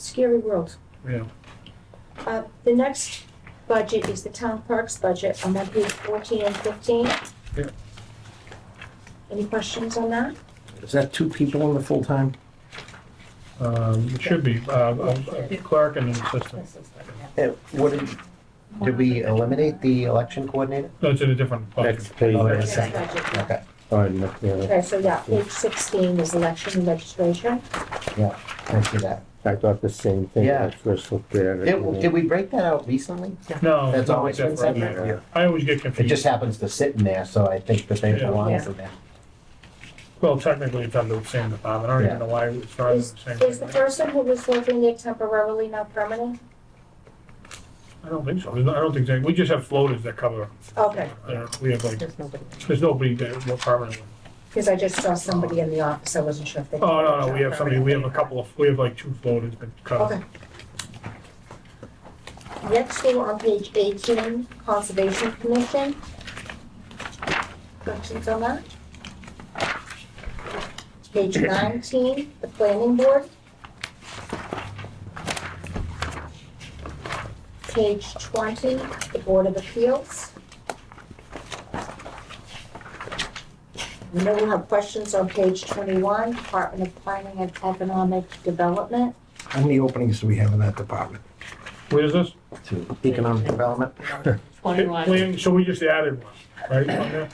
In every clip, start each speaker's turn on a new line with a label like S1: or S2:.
S1: scary world.
S2: Yeah.
S1: Uh, the next budget is the town parks budget, I'm on page fourteen and fifteen.
S2: Yeah.
S1: Any questions on that?
S3: Is that two people in the full-time?
S2: Um, it should be, uh, a clerk and an assistant.
S4: Uh, What did, did we eliminate the election coordinator?
S2: No, it's in a different
S3: That's
S2: bucket.
S3: page,
S4: Oh,
S1: The
S4: that's-
S3: that's
S1: next budget, yeah.
S4: Okay,
S3: fine, look, yeah,
S1: Okay, so yeah, page sixteen is election and registration.
S4: I see that.
S3: I thought the same thing,
S4: Yeah.
S3: I first looked at it.
S4: Did, did we break that out recently?
S2: No,
S4: That's
S2: it's
S4: always been
S2: different.
S4: separate.
S2: Yeah. I always get
S4: It just
S2: confused.
S4: happens to sit in there, so I think that they belong in there.
S2: Well, technically, it's under the same department. I don't even
S4: Yeah.
S2: know why it started in the same.
S1: Is the
S2: thing.
S1: person who was working there temporarily now permanent?
S2: I don't think so. There's no- I don't think, they- we just have floaters that cover.
S1: Okay,
S2: uh, We have like,
S5: There's nobody.
S2: there's nobody that, we're permanently.
S1: because I just saw somebody in the office, I wasn't sure if they.
S2: Oh, no, no, we have somebody, we have a couple of, we have like two floaters that cover.
S1: Okay. Next, we're on page eighteen, Conservation Commission. Questions on that? Page nineteen, the Planning Board. Page twenty, the Board of Appeals. We know we have questions on page twenty-one, Department of Planning and Economic Development.
S6: How many openings do we have in that department?
S2: Where is this?
S4: To
S3: Economic development,
S5: Twenty-one.
S2: Planning, so we just added one, right? on there?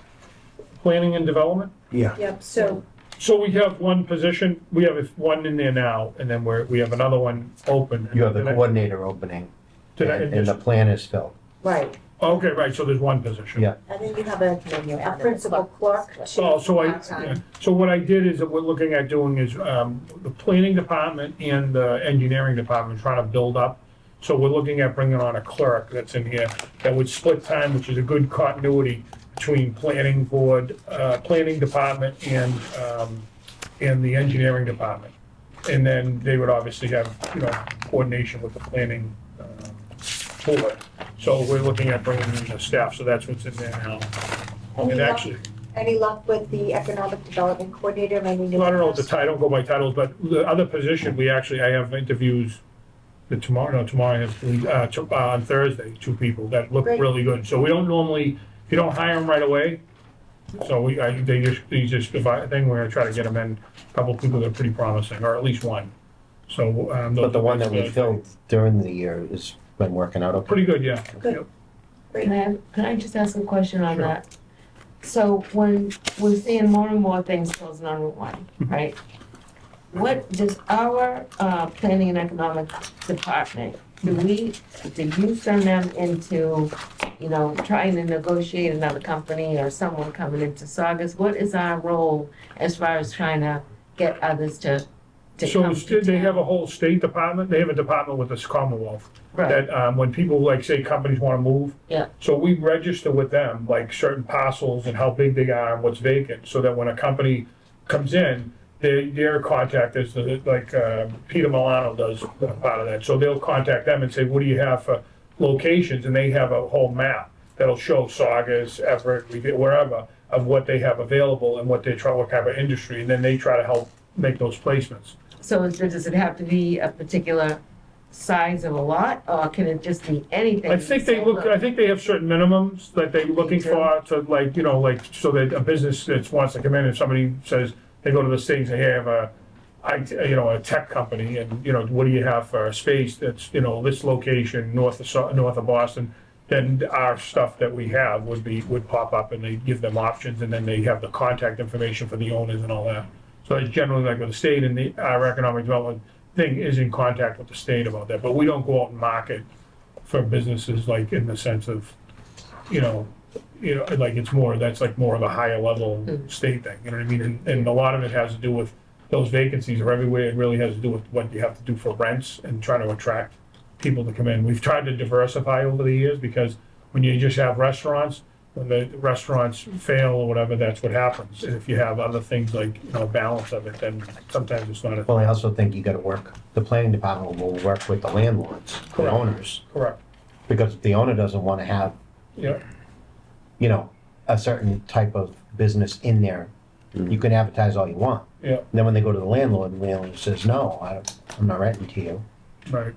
S2: Planning and development?
S6: Yeah,
S1: Yep, so
S2: So we have one position, we have one in there now, and then we're, we have another one open.
S4: You have the
S2: Did I-
S4: coordinator opening
S2: did I-
S4: and and the plan is filled.
S1: Right,
S2: Okay, right, so there's one position.
S4: Yeah.
S1: and then you have a,
S5: Then you
S1: a
S5: added the
S1: principal
S5: clerk.
S1: clerk to
S2: So, so I,
S1: part-time.
S2: yeah. so what I did is, that we're looking at doing is, um, the planning department and the engineering department trying to build up. So we're looking at bringing on a clerk that's in here that would split time, which is a good continuity between planning board, uh, planning department and, um, and the engineering department. And then they would obviously have, you know, coordination with the planning, um, board. So we're looking at bringing in the staff, so that's what's in there now.
S1: Any
S2: And
S1: luck-
S2: actually,
S1: Any luck with the economic development coordinator, I mean?
S2: well, I don't know if the title, I don't go by titles, but the other position, we actually, I have interviews the tomorrow, no, tomorrow, I have, uh, to- uh, on Thursday, two people that look
S1: Great.
S2: really good. So we don't normally, you don't hire them right away. So we, I, they just, they just, if I think we're gonna try to get them in, a couple of people that are pretty promising, or at least one. So, um.
S4: But the
S2: those-
S4: one that we filled during the year has been working out okay.
S2: Pretty good, yeah.
S1: Good.
S2: Yep.
S5: Can I, can I just ask a question on
S2: Sure.
S5: that? So when we're seeing more and more things closing on Route One,
S2: Mm-hmm.
S5: right? What does our, uh, planning and economic department, do
S2: Mm-hmm.
S5: we, do you send them into, you know, trying to negotiate another company or someone coming into Saugus? What is our role as far as trying to get others to, to
S2: So
S5: come
S2: it's-
S5: to
S2: they have
S5: town?
S2: a whole state department, they have a department with this Commonwealth.
S5: Right,
S2: that um, when people like say companies want to move.
S5: Yeah.
S2: So we register with them like certain parcels and how big they are and what's vacant, so that when a company comes in, they their contact is the- like uh, Peter Milano does a part of that. So they'll contact them and say, "What do you have for locations?" And they have a whole map that'll show Saugus, Everett, we get wherever of what they have available and what they try, what kind of industry, and then they try to help make those placements.
S5: so is- does it have to be a particular size of a lot, or can it just be anything?
S2: I think they look, I think they have certain minimums that they're looking
S5: do.
S2: for to like, you know, like, so that a business that wants to come in, if somebody says, they go to the state and say, hey, I have a, I, you know, a tech company, and, you know, what do you have for a space that's, you know, this location, north of, Sau- north of Boston? Then our stuff that we have would be, would pop up, and they give them options, and then they have the contact information for the owners and all that. So it's generally like with the state and the, our economic development thing is in contact with the state about that, but we don't go out and market for businesses, like in the sense of, you know, you know, like it's more, that's like more of a higher level
S5: Mm.
S2: state thing, you know what I mean? And, and a lot of it has to do with those vacancies are everywhere. It really has to do with what you have to do for rents and trying to attract people to come in. We've tried to diversify over the years because when you just have restaurants, when the restaurants fail or whatever, that's what happens. And if you have other things like, you know, balance of it, then sometimes it's not a,
S4: Well, I also think you gotta work, the planning department will work with the landlords, the
S2: Correct.
S4: owners.
S2: correct.
S4: Because if the owner doesn't wanna have
S2: Yeah,
S4: you know, a certain type of business in there. You can advertise all you want.
S2: yeah,
S4: And then when they go to the landlord, and the landlord says, no, I, I'm not renting to you.
S2: right.